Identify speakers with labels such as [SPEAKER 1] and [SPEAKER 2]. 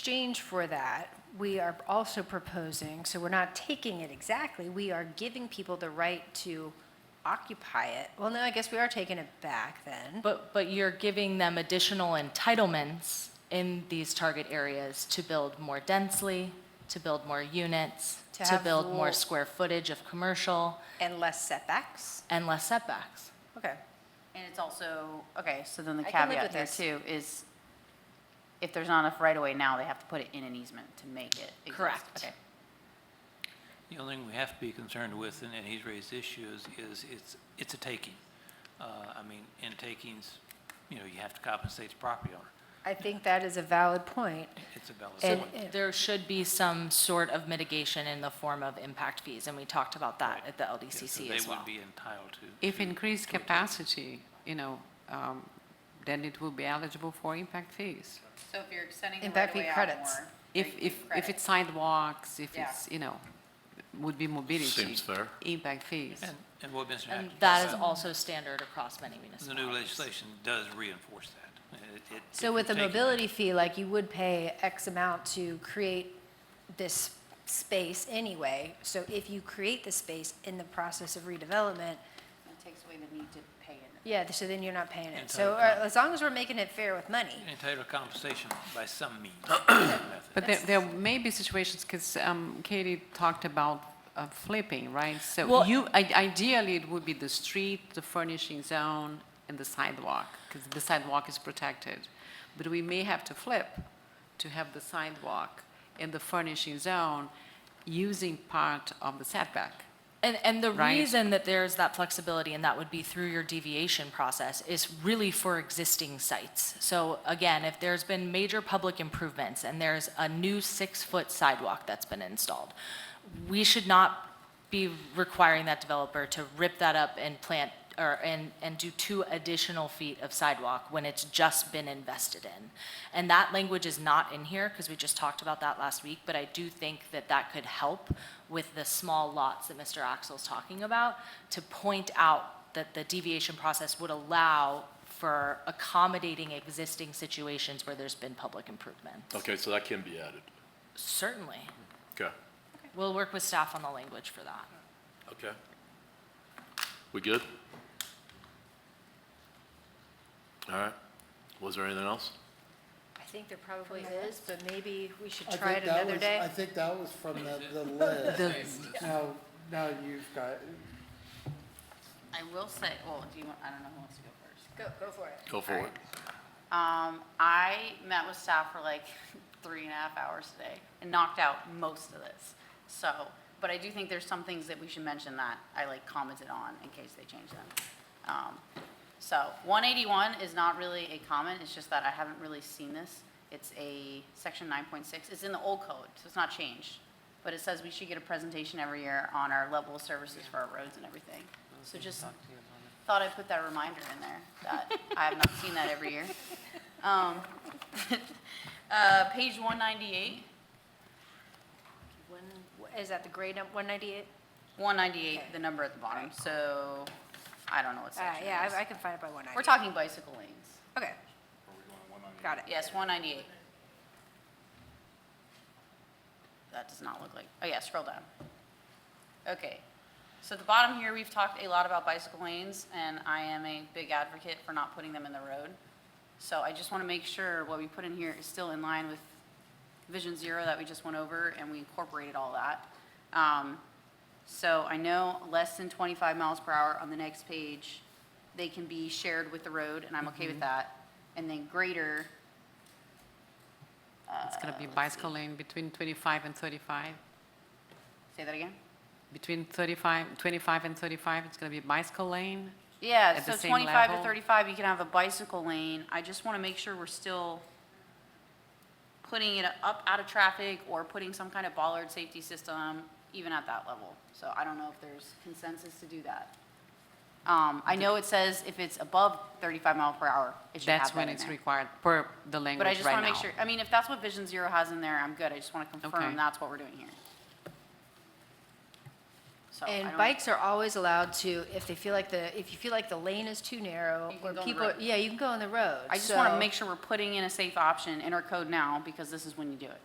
[SPEAKER 1] exchange for that, we are also proposing, so we're not taking it exactly, we are giving people the right to occupy it. Well, no, I guess we are taking it back then.
[SPEAKER 2] But, but you're giving them additional entitlements in these target areas to build more densely, to build more units,
[SPEAKER 1] To
[SPEAKER 2] to
[SPEAKER 1] have
[SPEAKER 2] build more
[SPEAKER 1] more-
[SPEAKER 2] square footage of commercial
[SPEAKER 1] And less setbacks?
[SPEAKER 2] and less setbacks.
[SPEAKER 1] Okay.
[SPEAKER 3] And it's also, okay, so then the
[SPEAKER 1] I can live
[SPEAKER 3] caveat
[SPEAKER 1] with
[SPEAKER 3] here
[SPEAKER 1] this.
[SPEAKER 3] too is if there's not enough right of way now, they have to put it in an easement to make it exist.
[SPEAKER 2] Correct.
[SPEAKER 3] Okay.
[SPEAKER 4] The only thing we have to be concerned with, and and he's raised issues, is it's, it's a taking. Uh, I mean, in takings, you know, you have to compensate the property owner.
[SPEAKER 1] I think that is a valid point.
[SPEAKER 4] It's a valid
[SPEAKER 1] And-
[SPEAKER 4] point.
[SPEAKER 2] There should be some sort of mitigation in the form of impact fees, and we talked about that at the
[SPEAKER 4] Yeah, so
[SPEAKER 2] LDCC as
[SPEAKER 4] They would
[SPEAKER 2] well.
[SPEAKER 4] be entitled to.
[SPEAKER 5] If increased capacity, you know, um, then it will be eligible for impact fees.
[SPEAKER 3] So if you're extending the right
[SPEAKER 1] Impact
[SPEAKER 3] of
[SPEAKER 1] fee
[SPEAKER 3] way out
[SPEAKER 1] credits.
[SPEAKER 3] more.
[SPEAKER 5] If,
[SPEAKER 3] you
[SPEAKER 5] if,
[SPEAKER 3] credit.
[SPEAKER 5] if it's sidewalks, if
[SPEAKER 3] Yeah.
[SPEAKER 5] it's, you know, would be mobility.
[SPEAKER 6] Seems fair.
[SPEAKER 5] Impact fees.
[SPEAKER 4] And, and what Mr.
[SPEAKER 2] And
[SPEAKER 4] Hackett
[SPEAKER 2] that is
[SPEAKER 4] said,
[SPEAKER 2] also standard across many
[SPEAKER 4] The new
[SPEAKER 2] municipalities.
[SPEAKER 4] legislation does reinforce that. It- it-
[SPEAKER 1] So
[SPEAKER 4] if
[SPEAKER 1] with a
[SPEAKER 4] you're taking-
[SPEAKER 1] mobility fee, like you would pay X amount to create this space anyway. So if you create the space in the process of redevelopment,
[SPEAKER 3] It takes away the need to pay it.
[SPEAKER 1] yeah, so then you're not paying it.
[SPEAKER 4] And
[SPEAKER 1] So
[SPEAKER 4] totally.
[SPEAKER 1] uh, as long as we're making it fair with money.
[SPEAKER 4] Entitled to compensation by some means. method.
[SPEAKER 5] But there, there may be situations, because Katie talked about uh, flipping, right? So
[SPEAKER 2] Well-
[SPEAKER 5] you, i- ideally, it would be the street, the furnishing zone, and the sidewalk, because the sidewalk is protected. But we may have to flip to have the sidewalk and the furnishing zone using part of the setback.
[SPEAKER 2] And, and the
[SPEAKER 5] Right.
[SPEAKER 2] reason that there's that flexibility, and that would be through your deviation process, is really for existing sites. So again, if there's been major public improvements and there's a new six-foot sidewalk that's been installed, we should not be requiring that developer to rip that up and plant, or, and, and do two additional feet of sidewalk when it's just been invested in. And that language is not in here, because we just talked about that last week, but I do think that that could help with the small lots that Mr. Axel's talking about, to point out that the deviation process would allow for accommodating existing situations where there's been public improvements.
[SPEAKER 6] Okay, so that can be added.
[SPEAKER 2] Certainly.
[SPEAKER 6] Okay.
[SPEAKER 2] We'll work with staff on the language for that.
[SPEAKER 6] Okay. We good? All right. Was there anything else?
[SPEAKER 1] I think there probably is, but maybe we should
[SPEAKER 7] I
[SPEAKER 1] try it
[SPEAKER 7] think that
[SPEAKER 1] another
[SPEAKER 7] was-
[SPEAKER 1] day.
[SPEAKER 7] I think that was from the, the list. Now, now you've got,
[SPEAKER 3] I will say, well, do you want, I don't know who wants to go first.
[SPEAKER 1] Go, go for it.
[SPEAKER 6] Go for it.
[SPEAKER 3] Um, I met with staff for like three and a half hours today and knocked out most of this. So, but I do think there's some things that we should mention that I like commented on in case they change them. Um, So 181 is not really a comment, it's just that I haven't really seen this. It's a section 9.6, it's in the old code, so it's not changed. But it says we should get a presentation every year on our level of services for our roads and everything. So just thought I'd put that reminder in there, that I have not seen that every year. Um, uh, Page 198,
[SPEAKER 1] When- Is that the grade num- 198?
[SPEAKER 3] 198, the number at the bottom, so I don't know what
[SPEAKER 1] Uh,
[SPEAKER 3] section
[SPEAKER 1] Yeah,
[SPEAKER 3] it
[SPEAKER 1] I I
[SPEAKER 3] is.
[SPEAKER 1] can find it by 198.
[SPEAKER 3] We're talking bicycle lanes.
[SPEAKER 1] Okay. Got it.
[SPEAKER 3] Yes, 198. That does not look like, oh yeah, scroll down. Okay, so at the bottom here, we've talked a lot about bicycle lanes, and I am a big advocate for not putting them in the road. So I just want to make sure what we put in here is still in line with Vision Zero that we just went over, and we incorporated all that. Um, So I know less than 25 miles per hour on the next page, they can be shared with the road, and I'm okay with that. And then greater,
[SPEAKER 5] It's going to
[SPEAKER 3] Ah,
[SPEAKER 5] be bicycle lane between 25 and 35.
[SPEAKER 3] say that again?
[SPEAKER 5] Between 35, 25 and 35, it's going to be bicycle lane.
[SPEAKER 3] Yeah,
[SPEAKER 5] At
[SPEAKER 3] so
[SPEAKER 5] the same
[SPEAKER 3] 25 to
[SPEAKER 5] level?
[SPEAKER 3] 35, you can have a bicycle lane. I just want to make sure we're still putting it up out of traffic or putting some kind of bollard safety system even at that level. So I don't know if there's consensus to do that. Um, I know it says if it's above 35 mile per hour, it should have
[SPEAKER 5] That's
[SPEAKER 3] that
[SPEAKER 5] when
[SPEAKER 3] in
[SPEAKER 5] it's
[SPEAKER 3] there.
[SPEAKER 5] required per the language
[SPEAKER 3] But I
[SPEAKER 5] right now.
[SPEAKER 3] just want to make sure, I mean, if that's what Vision Zero has in there, I'm good. I just want to
[SPEAKER 5] Okay.
[SPEAKER 3] confirm that's what we're doing here. so. I
[SPEAKER 1] And
[SPEAKER 3] don't-
[SPEAKER 1] bikes are always allowed to, if they feel like the, if you feel like the lane is too narrow,
[SPEAKER 3] You can
[SPEAKER 1] or
[SPEAKER 3] go on the
[SPEAKER 1] people,
[SPEAKER 3] road.
[SPEAKER 1] yeah, you can go on the road.
[SPEAKER 3] I just want to
[SPEAKER 1] so-
[SPEAKER 3] make sure we're putting in a safe option in our code now, because this is when you do it.